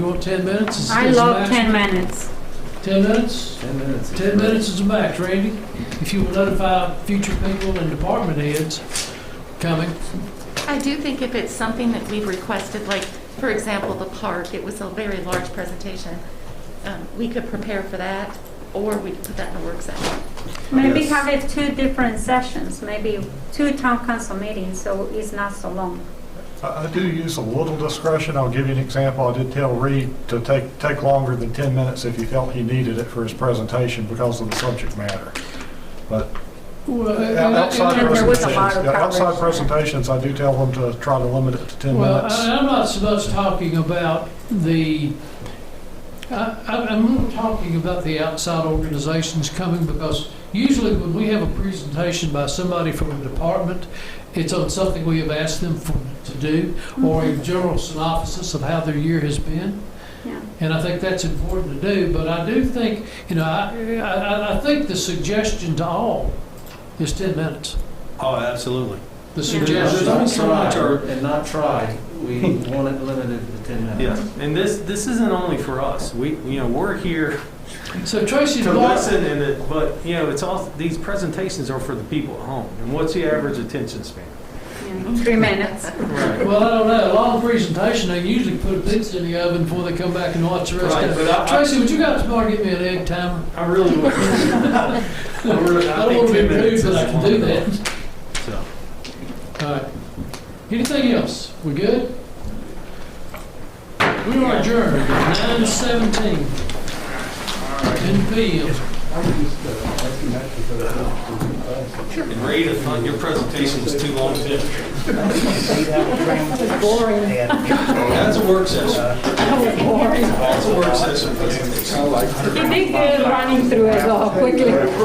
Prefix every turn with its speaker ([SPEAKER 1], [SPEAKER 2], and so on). [SPEAKER 1] comfortable with 10 minutes? Is-
[SPEAKER 2] I
[SPEAKER 1] is the
[SPEAKER 2] love
[SPEAKER 1] max-
[SPEAKER 2] 10 minutes.
[SPEAKER 1] 10 minutes?
[SPEAKER 3] 10 minutes. is
[SPEAKER 1] 10
[SPEAKER 3] great.
[SPEAKER 1] minutes is the max, Randy. If you will notify future people and department heads coming.
[SPEAKER 4] I do think if it's something that we've requested, like, for example, the park, it was a very large presentation, um, we could prepare for that, or we could put that in a work session.
[SPEAKER 2] Maybe
[SPEAKER 3] Yes.
[SPEAKER 2] have it two different sessions, maybe two town council meetings, so it's not so long.
[SPEAKER 5] I I do use a little discretion. I'll give you an example. I did tell Reed to take, take longer than 10 minutes if he felt he needed it for his presentation because of the subject matter. But
[SPEAKER 1] Well, uh,
[SPEAKER 5] outside
[SPEAKER 2] and there was a
[SPEAKER 5] presentations,
[SPEAKER 2] lot of
[SPEAKER 5] yeah, outside
[SPEAKER 2] coverage.
[SPEAKER 5] presentations, I do tell them to try to limit it to 10
[SPEAKER 1] Well,
[SPEAKER 5] minutes.
[SPEAKER 1] I- I'm not so much talking about the, I- I- I'm more talking about the outside organizations coming because usually when we have a presentation by somebody from a department, it's on something we have asked them for- to do or
[SPEAKER 2] Mm-hmm.
[SPEAKER 1] a general synopsis of how their year has been.
[SPEAKER 2] Yeah.
[SPEAKER 1] And I think that's important to do, but I do think, you know, I, I, I- I think the suggestion to all is 10 minutes.
[SPEAKER 6] Oh, absolutely.
[SPEAKER 1] The
[SPEAKER 4] Yeah.
[SPEAKER 1] suggestion.
[SPEAKER 3] Not try, and not try. We want it limited to 10 minutes.
[SPEAKER 6] Yeah, and this, this isn't only for us. We, you know, we're here
[SPEAKER 1] So Tracy,
[SPEAKER 6] to
[SPEAKER 1] Blar-
[SPEAKER 6] listen and it, but, you know, it's all, these presentations are for the people at home. And what's the average attention span?
[SPEAKER 2] Yeah, Three minutes.
[SPEAKER 6] Right.
[SPEAKER 1] Well, I don't know. A long presentation, they usually put a pizza in the oven before they come back and watch the rest
[SPEAKER 6] Right,
[SPEAKER 1] of
[SPEAKER 6] but
[SPEAKER 1] it.
[SPEAKER 6] I- I-
[SPEAKER 1] Tracy, would you guys tomorrow get me an egg timer?
[SPEAKER 6] I really would. I really-
[SPEAKER 1] I don't
[SPEAKER 6] think
[SPEAKER 1] want to be
[SPEAKER 6] 10 minutes
[SPEAKER 1] rude,
[SPEAKER 6] is
[SPEAKER 1] but I can
[SPEAKER 6] long
[SPEAKER 1] do
[SPEAKER 6] enough.
[SPEAKER 1] that.
[SPEAKER 6] So,
[SPEAKER 1] All right. Anything else? We good? We are adjourned at nine seventeen. Ten PM.
[SPEAKER 6] And Ray, I thought your presentation was too long. too. That's a work session. That's a work session presentation.
[SPEAKER 7] He did good running through it all quickly.